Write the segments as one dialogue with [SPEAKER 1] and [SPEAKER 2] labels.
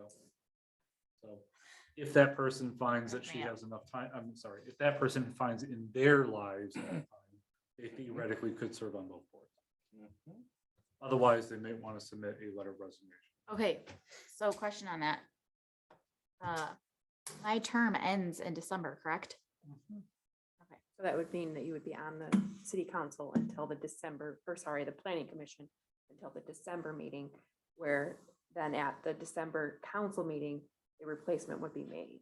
[SPEAKER 1] else. So if that person finds that she has enough time, I'm sorry, if that person finds in their lives, enough time, they theoretically could serve on both boards.
[SPEAKER 2] Mm-hmm.
[SPEAKER 1] Otherwise, they may want to submit a letter of resignation.
[SPEAKER 3] Okay, so question on that. Uh, My term ends in December, correct?
[SPEAKER 4] So that would mean that you would be on the city council until the December, or sorry, the planning commission until the December meeting, where then at the December council meeting, a replacement would be made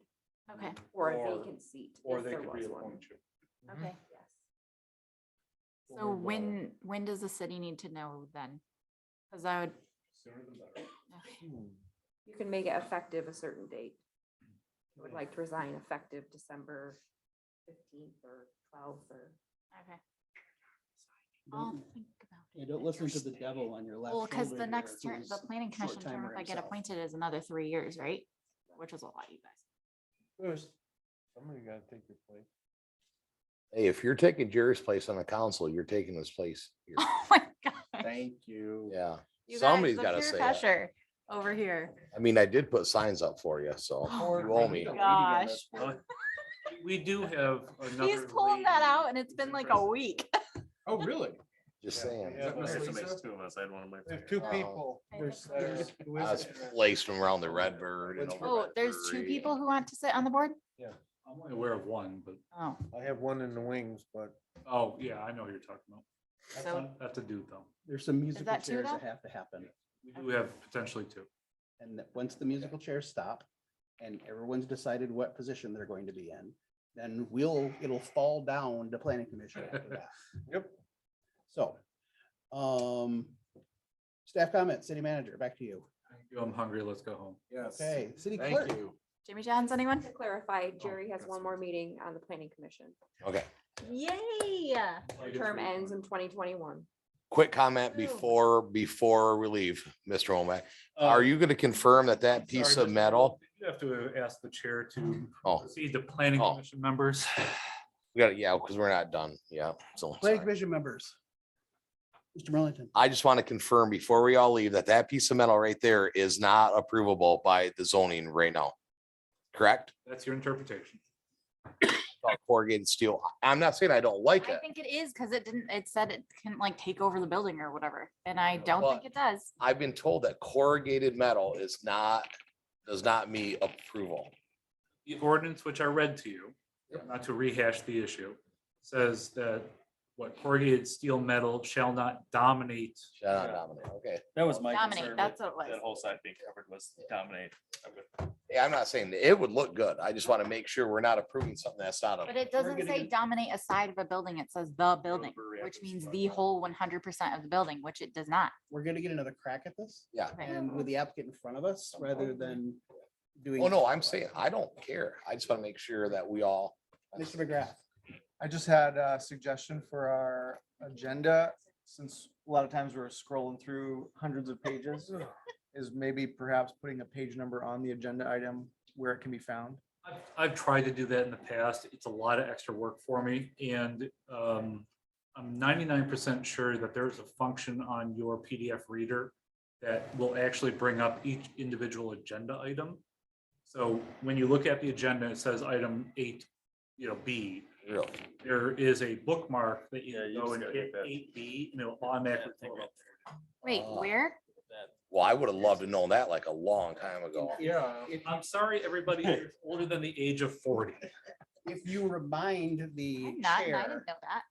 [SPEAKER 3] Okay,
[SPEAKER 4] or a
[SPEAKER 2] Or-
[SPEAKER 4] vacant seat.
[SPEAKER 2] Or
[SPEAKER 4] if
[SPEAKER 2] they
[SPEAKER 4] there
[SPEAKER 2] could
[SPEAKER 4] was one.
[SPEAKER 2] reappoint you.
[SPEAKER 1] Mm-hmm.
[SPEAKER 3] okay.
[SPEAKER 4] Yes.
[SPEAKER 2] Or
[SPEAKER 3] So
[SPEAKER 2] the
[SPEAKER 3] when, when does the city need to know then? Because I would,
[SPEAKER 2] Sooner the better. Hmm.
[SPEAKER 3] okay,
[SPEAKER 4] You can make it effective a certain date. I Would like to resign effective December fifteenth or twelfth or.
[SPEAKER 3] okay. I'll
[SPEAKER 5] Don't-
[SPEAKER 3] think about it.
[SPEAKER 5] Yeah, don't listen to the devil on your left.
[SPEAKER 3] Oh. Well, because
[SPEAKER 5] shoulder
[SPEAKER 3] the
[SPEAKER 5] there,
[SPEAKER 3] next term,
[SPEAKER 5] who's
[SPEAKER 3] the planning commission term,
[SPEAKER 5] short-timer
[SPEAKER 3] if I get
[SPEAKER 5] himself.
[SPEAKER 3] appointed, is another three years, right? Which is a lot, you guys.
[SPEAKER 2] First, somebody gotta take your place.
[SPEAKER 6] Hey, if you're taking Jerry's place on the council, you're taking his place. here.
[SPEAKER 3] Oh my god.
[SPEAKER 2] Thank you.
[SPEAKER 6] Yeah, somebody's gotta say that.
[SPEAKER 3] Over here.
[SPEAKER 6] I mean, I did put signs up for you, so
[SPEAKER 3] Oh
[SPEAKER 6] you owe me.
[SPEAKER 3] Gosh,
[SPEAKER 1] But We do have another.
[SPEAKER 3] he's pulling that
[SPEAKER 1] lady
[SPEAKER 3] out and it's
[SPEAKER 1] who's
[SPEAKER 3] been like a
[SPEAKER 1] interested.
[SPEAKER 3] week.
[SPEAKER 2] Oh, really?
[SPEAKER 6] Just saying.
[SPEAKER 2] Yeah,
[SPEAKER 7] Okay,
[SPEAKER 2] Lisa?
[SPEAKER 7] so makes two of us, I had one of my.
[SPEAKER 2] There's two
[SPEAKER 6] Uh,
[SPEAKER 2] people.
[SPEAKER 3] I
[SPEAKER 2] There's-
[SPEAKER 3] think-
[SPEAKER 2] there's- who
[SPEAKER 6] I
[SPEAKER 2] is
[SPEAKER 6] was
[SPEAKER 2] it?
[SPEAKER 6] placing them around the Redbird. and
[SPEAKER 2] Which-
[SPEAKER 6] over
[SPEAKER 3] Oh,
[SPEAKER 6] by the
[SPEAKER 3] there's two
[SPEAKER 6] brewery.
[SPEAKER 3] people who want to sit on the board?
[SPEAKER 1] I'm only aware of one, but,
[SPEAKER 3] Oh,
[SPEAKER 2] I have one in the wings, but.
[SPEAKER 1] oh, yeah, I know who you're talking about. That's
[SPEAKER 3] So-
[SPEAKER 1] a- That's a dude though.
[SPEAKER 5] There's some musical
[SPEAKER 3] that two
[SPEAKER 5] chairs
[SPEAKER 3] now?
[SPEAKER 5] that have to happen.
[SPEAKER 1] We do have potentially two.
[SPEAKER 5] And that once the musical chairs stop and everyone's decided what position they're going to be in, then we'll, it'll fall down to planning commission after that.
[SPEAKER 2] Yep.
[SPEAKER 5] So, um, staff comment, city manager, back to you.
[SPEAKER 1] Thank you. I'm hungry. Let's go home.
[SPEAKER 2] Yes.
[SPEAKER 5] Okay, city
[SPEAKER 2] Thank
[SPEAKER 5] clerk.
[SPEAKER 2] you.
[SPEAKER 3] Jimmy Johns, anyone?
[SPEAKER 4] To clarify,
[SPEAKER 2] Oh,
[SPEAKER 4] Jerry has
[SPEAKER 1] that's
[SPEAKER 4] one more meeting on the planning commission.
[SPEAKER 6] Okay,
[SPEAKER 3] Yay.
[SPEAKER 4] Term ends in twenty twenty-one.
[SPEAKER 6] quick comment
[SPEAKER 3] Ooh.
[SPEAKER 6] before, before we leave, Mr. Womack.
[SPEAKER 1] Uh,
[SPEAKER 2] Uh,
[SPEAKER 6] Are you gonna confirm that that piece of metal?
[SPEAKER 1] You have to ask the chair to
[SPEAKER 6] Oh,
[SPEAKER 1] proceed to planning
[SPEAKER 6] Oh.
[SPEAKER 1] commission members.
[SPEAKER 6] we got it. Yeah, because we're not done. Yeah. So
[SPEAKER 5] Planning
[SPEAKER 6] sorry.
[SPEAKER 5] commission members. Mr. Merlington.
[SPEAKER 6] I just want to confirm before we all leave that that piece of metal right there is not approvable by the zoning right now. Correct?
[SPEAKER 1] That's your interpretation.
[SPEAKER 6] about corrugated steel. I'm not saying I don't like
[SPEAKER 3] I
[SPEAKER 6] it.
[SPEAKER 3] think it is because it didn't, it said it can like take over the building or whatever, and I don't think
[SPEAKER 6] but-
[SPEAKER 3] it does.
[SPEAKER 6] I've been told that corrugated metal is not, does not meet approval.
[SPEAKER 1] The ordinance which I read to you, not to rehash the issue, says that what corrugated steel metal shall not dominate.
[SPEAKER 6] Shut up, Dominic. Okay.
[SPEAKER 7] That was my
[SPEAKER 3] Dominate,
[SPEAKER 7] concern.
[SPEAKER 3] that's
[SPEAKER 7] with
[SPEAKER 3] what it
[SPEAKER 7] That
[SPEAKER 3] was.
[SPEAKER 7] whole side being covered was dominate. I'm with-
[SPEAKER 6] Yeah, I'm not saying that it would look good. I just want to make sure we're not approving something that's not
[SPEAKER 3] But
[SPEAKER 6] a,
[SPEAKER 3] it doesn't
[SPEAKER 5] gonna
[SPEAKER 3] say
[SPEAKER 5] get-
[SPEAKER 3] dominate a side of a building, it says the building,
[SPEAKER 7] brewery
[SPEAKER 3] which
[SPEAKER 7] after this
[SPEAKER 3] means
[SPEAKER 7] is
[SPEAKER 3] the
[SPEAKER 7] done.
[SPEAKER 3] whole one hundred percent of the building, which it does not.
[SPEAKER 5] we're gonna get another crack at this.
[SPEAKER 6] Yeah.
[SPEAKER 3] Right.
[SPEAKER 5] And with the applicant in front of us, rather than doing.
[SPEAKER 6] oh no, I'm saying, I don't care. I just want to make sure that we all.
[SPEAKER 5] Mr. McGrath,
[SPEAKER 8] I just had a suggestion for our agenda, since a lot of times we're scrolling through hundreds of pages. Is maybe perhaps putting a page number on the agenda item where it can be found.
[SPEAKER 1] I've, I've tried to do that in the past. It's a lot of extra work for me and um, I'm ninety-nine percent sure that there's a function on your PDF reader that will actually bring up each individual agenda item. So when you look at the agenda, it says item eight, you know, B.
[SPEAKER 6] Really?
[SPEAKER 1] There is a bookmark that
[SPEAKER 7] Yeah, you
[SPEAKER 1] you go
[SPEAKER 7] just
[SPEAKER 1] and
[SPEAKER 7] gotta
[SPEAKER 1] hit
[SPEAKER 7] get that.
[SPEAKER 1] eight B and it'll automatically. pull it up.
[SPEAKER 3] Wait,
[SPEAKER 5] uh,
[SPEAKER 6] Ah.
[SPEAKER 3] where?
[SPEAKER 6] Well, I would have loved to know that like a long time ago.
[SPEAKER 2] Yeah.
[SPEAKER 1] I'm sorry, everybody who's older than the age of forty.
[SPEAKER 5] if you remind the
[SPEAKER 3] I'm not, and I
[SPEAKER 5] chair,
[SPEAKER 3] didn't know that.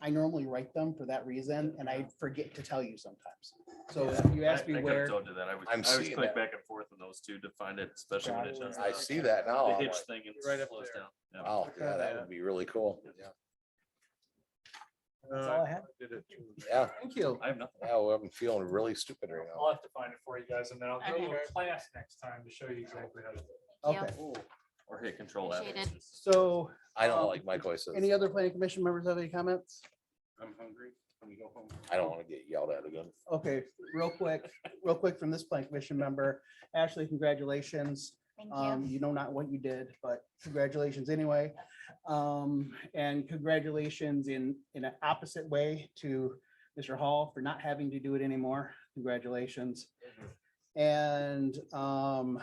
[SPEAKER 5] I normally write them for that reason, and I forget to tell you sometimes. So
[SPEAKER 7] Yeah,
[SPEAKER 5] you asked
[SPEAKER 7] I-
[SPEAKER 5] me
[SPEAKER 7] I could've
[SPEAKER 5] where,
[SPEAKER 7] Told you that. I would, I
[SPEAKER 6] I'm
[SPEAKER 7] always
[SPEAKER 6] seeing
[SPEAKER 7] click
[SPEAKER 6] that.
[SPEAKER 7] back and forth on those two to find it, especially when it does.
[SPEAKER 6] I
[SPEAKER 7] the-
[SPEAKER 6] see that now.
[SPEAKER 7] The
[SPEAKER 6] I'm
[SPEAKER 7] hitch
[SPEAKER 6] like,
[SPEAKER 7] thing and
[SPEAKER 8] Right up
[SPEAKER 7] slows
[SPEAKER 8] there.
[SPEAKER 7] down. Yeah.
[SPEAKER 6] Wow, yeah, that would be really cool. Yeah.
[SPEAKER 7] Uh,
[SPEAKER 5] that's all I had.
[SPEAKER 6] Yeah,
[SPEAKER 5] Thank you.
[SPEAKER 7] I have nothing.
[SPEAKER 6] yeah, well, I'm feeling really stupid right now.
[SPEAKER 1] I'll have to find it for you guys and then I'll give you
[SPEAKER 3] Okay.
[SPEAKER 1] a class next time to show you exactly how to. do it.
[SPEAKER 3] Thank you.
[SPEAKER 5] Okay,
[SPEAKER 7] Or hit control F.
[SPEAKER 3] Appreciate it.
[SPEAKER 5] so
[SPEAKER 6] I
[SPEAKER 5] Um,
[SPEAKER 6] don't like Mike always says,
[SPEAKER 5] any other planning commission members have any comments?
[SPEAKER 2] I'm hungry. When you go home.
[SPEAKER 6] I don't want to get yelled at again.
[SPEAKER 5] Okay, real quick, real quick from this planning commission member, Ashley, congratulations.
[SPEAKER 3] Thank
[SPEAKER 5] Um,
[SPEAKER 3] you.
[SPEAKER 5] you know not what you did, but congratulations anyway. Um, and congratulations in, in an opposite way to Mr. Hall for not having to do it anymore. Congratulations. And, um,